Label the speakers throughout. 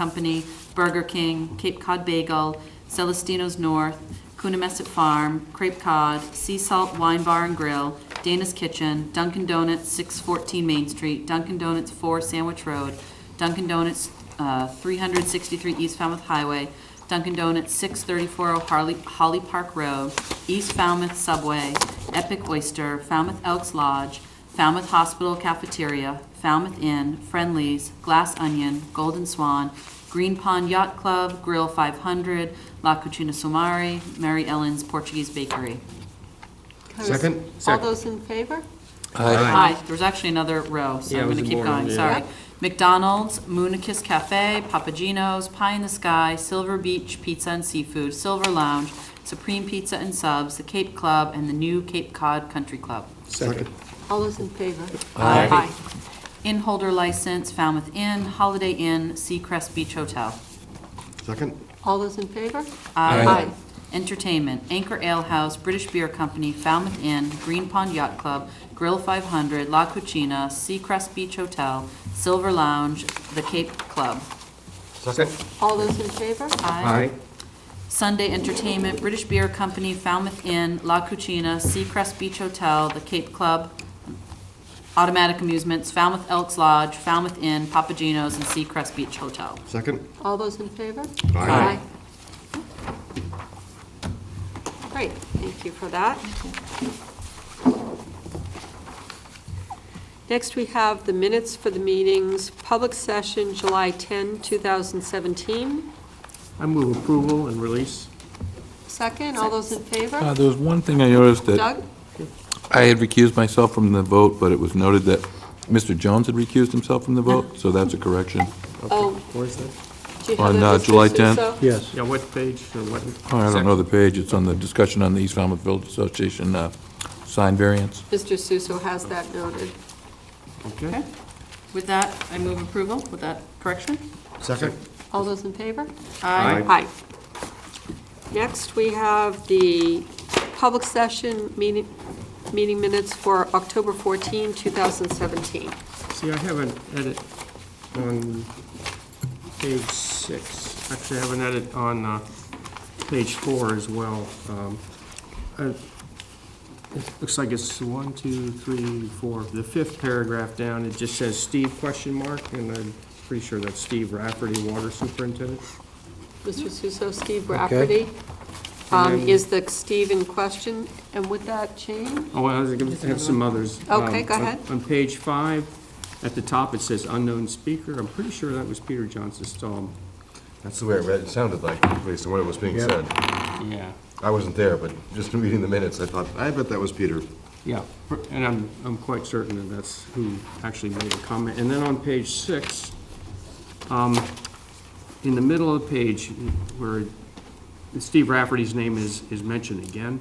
Speaker 1: Company, Burger King, Cape Cod Bagel, Celestino's North, Coonamessett Farm, Crepe Cod, Sea Salt Wine Bar and Grill, Dana's Kitchen, Dunkin' Donuts, 614 Main Street, Dunkin' Donuts, 4 Sandwich Road, Dunkin' Donuts, uh, 363 East Falmouth Highway, Dunkin' Donuts, 634 Harley- Holly Park Road, East Falmouth Subway, Epic Oyster, Falmouth Elks Lodge, Falmouth Hospital Cafeteria, Falmouth Inn, Friendlies, Glass Onion, Golden Swan, Green Pond Yacht Club, Grill 500, La Cucina Sumari, Mary Ellen's Portuguese Bakery.
Speaker 2: Second?
Speaker 3: All
Speaker 2: Second.
Speaker 3: those in favor?
Speaker 1: Hi, there was actually another row, so
Speaker 2: Yeah,
Speaker 1: I'm
Speaker 2: it was
Speaker 1: going to keep
Speaker 2: more,
Speaker 1: going,
Speaker 2: yeah.
Speaker 1: sorry. McDonald's, Moonakis Cafe, Papagino's, Pie in the Sky, Silver Beach Pizza and Seafood, Silver Lounge, Supreme Pizza and Subs, The Cape Club, and the new Cape Cod Country Club.
Speaker 2: Second.
Speaker 3: All those in favor?
Speaker 2: Aye.
Speaker 1: In holder license, Falmouth Inn, Holiday Inn, Seacrest Beach Hotel.
Speaker 2: Second?
Speaker 3: All those in favor?
Speaker 2: Aye.
Speaker 3: Aye.
Speaker 1: Entertainment, Anchor Ale House, British Beer Company, Falmouth Inn, Green Pond Yacht Club, Grill 500, La Cucina, Seacrest Beach Hotel, Silver Lounge, The Cape Club.
Speaker 2: Second.
Speaker 3: All those in favor?
Speaker 2: Aye.
Speaker 1: Sunday Entertainment, British Beer Company, Falmouth Inn, La Cucina, Seacrest Beach Hotel, The Cape Club, Automatic Amusements, Falmouth Elks Lodge, Falmouth Inn, Papagenos, and Seacrest Beach Hotel.
Speaker 2: Second?
Speaker 3: All those in favor? Aye.
Speaker 2: Aye.
Speaker 3: Great, thank you for that. Next, we have the minutes for the meetings, public session, July 10, 2017.
Speaker 2: I move approval and release.
Speaker 3: Second, all those in
Speaker 4: Uh,
Speaker 3: favor?
Speaker 4: There was one thing I noticed that
Speaker 3: Doug?
Speaker 4: I had recused myself from the vote, but it was noted that Mr. Jones had recused himself from the vote, so that's a correction.
Speaker 3: Oh,
Speaker 2: Where's that?
Speaker 3: do you have
Speaker 4: On,
Speaker 3: that,
Speaker 4: uh,
Speaker 3: Mr.
Speaker 4: July 10th?
Speaker 3: Suso?
Speaker 2: Yes. Yeah, what page or what?
Speaker 4: Oh, I don't know the page, it's on the discussion on the East Falmouth Village Association uh, sign variance.
Speaker 3: Mr. Suso has that noted.
Speaker 2: Okay.
Speaker 1: With that, I move approval with that correction.
Speaker 2: Second?
Speaker 3: All those in favor?
Speaker 2: Aye.
Speaker 3: Aye. Next, we have the public session meeting, meeting minutes for October 14, 2017.
Speaker 2: See, I have an edit on page six. Actually, I have an edit on uh, page four as well. Um, I- It Looks like it's one, two, three, four. The fifth paragraph down, it just says Steve question mark, and I'm pretty sure that's Steve Rafferty, Water Superintendent.
Speaker 3: Mr. Suso, Steve Rafferty um,
Speaker 2: And-
Speaker 3: is the Steve in question, and would that change?
Speaker 2: Oh, I was gonna have some others.
Speaker 3: Okay,
Speaker 2: Um,
Speaker 3: go
Speaker 2: on-
Speaker 3: ahead.
Speaker 2: On page five, at the top, it says unknown speaker. I'm pretty sure that was Peter Johnson Stahl.
Speaker 5: That's the way I read, it sounded like, based on what was being
Speaker 2: Yeah.
Speaker 5: said.
Speaker 2: Yeah,
Speaker 5: I wasn't there, but just reading the minutes, I thought, I bet that was Peter.
Speaker 2: yeah, per- and I'm, I'm quite certain that that's who actually made the comment. And then on page six, um, in the middle of the page, where Steve Rafferty's name is, is mentioned again,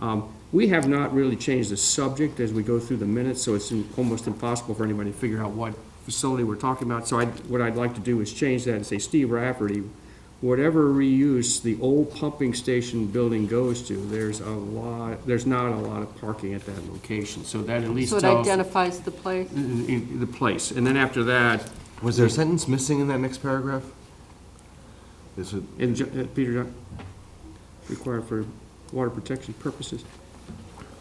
Speaker 2: um, we have not really changed the subject as we go through the minutes, so it's in- almost impossible for anybody to figure out what facility we're talking about. So I, what I'd like to do is change that and say, Steve Rafferty, whatever reuse the old pumping station building goes to, there's a lot, there's not a lot of parking at that location, so that at least
Speaker 3: So it
Speaker 2: tells
Speaker 3: identifies the place?
Speaker 2: in- in the place. And then after that,
Speaker 5: Was there a sentence missing in that next paragraph? Is it,
Speaker 2: in, Ju- uh, Peter, Ju- required for water protection purposes.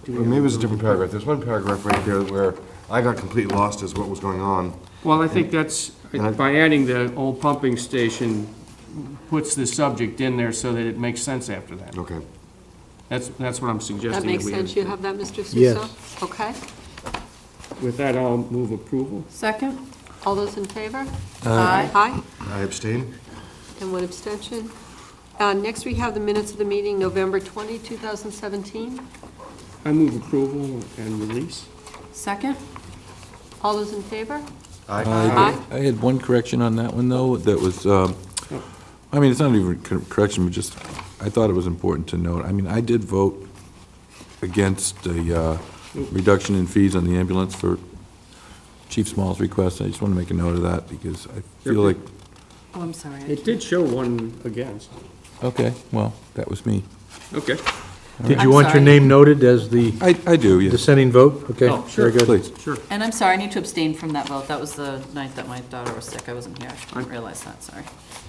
Speaker 2: Do we
Speaker 5: or maybe it
Speaker 2: have-
Speaker 5: was a different paragraph. There's one paragraph right there where I got completely lost as what was going on.
Speaker 2: Well, I think that's, by adding the old pumping station, puts the subject in there so that it makes sense after that.
Speaker 5: Okay.
Speaker 2: That's, that's what I'm suggesting.
Speaker 3: That makes
Speaker 2: we
Speaker 3: sense,
Speaker 2: do.
Speaker 3: you have that, Mr. Suso? Okay,
Speaker 2: With that, I'll move approval.
Speaker 1: Second?
Speaker 3: all those in favor?
Speaker 1: Aye.
Speaker 3: Aye.
Speaker 5: I abstain?
Speaker 3: And one abstention. Uh, Next, we have the minutes of the meeting, November 20, 2017.
Speaker 2: I move approval and release.
Speaker 1: Second?
Speaker 3: All those in favor?
Speaker 5: I.
Speaker 3: Aye.
Speaker 4: I had one correction on that one, though, that was, um, I mean, it's not even cor- correction, but just, I thought it was important to note. I mean, I did vote against the uh, reduction in fees on the ambulance for Chief Small's request. I just want to make a note of that, because I feel like,
Speaker 1: Oh, I'm sorry.
Speaker 2: It did show one against.
Speaker 4: okay, well, that was me.
Speaker 2: Okay.
Speaker 6: Did
Speaker 1: I'm
Speaker 6: you want your
Speaker 1: sorry.
Speaker 6: name noted as the
Speaker 4: I, I do, yes,
Speaker 6: dissenting vote? Okay,
Speaker 2: Oh, sure.
Speaker 6: very good.
Speaker 4: please.
Speaker 2: Sure.
Speaker 1: And I'm sorry, I need to abstain from that vote. That was the night that my daughter was sick. I wasn't here. I didn't realize that, sorry.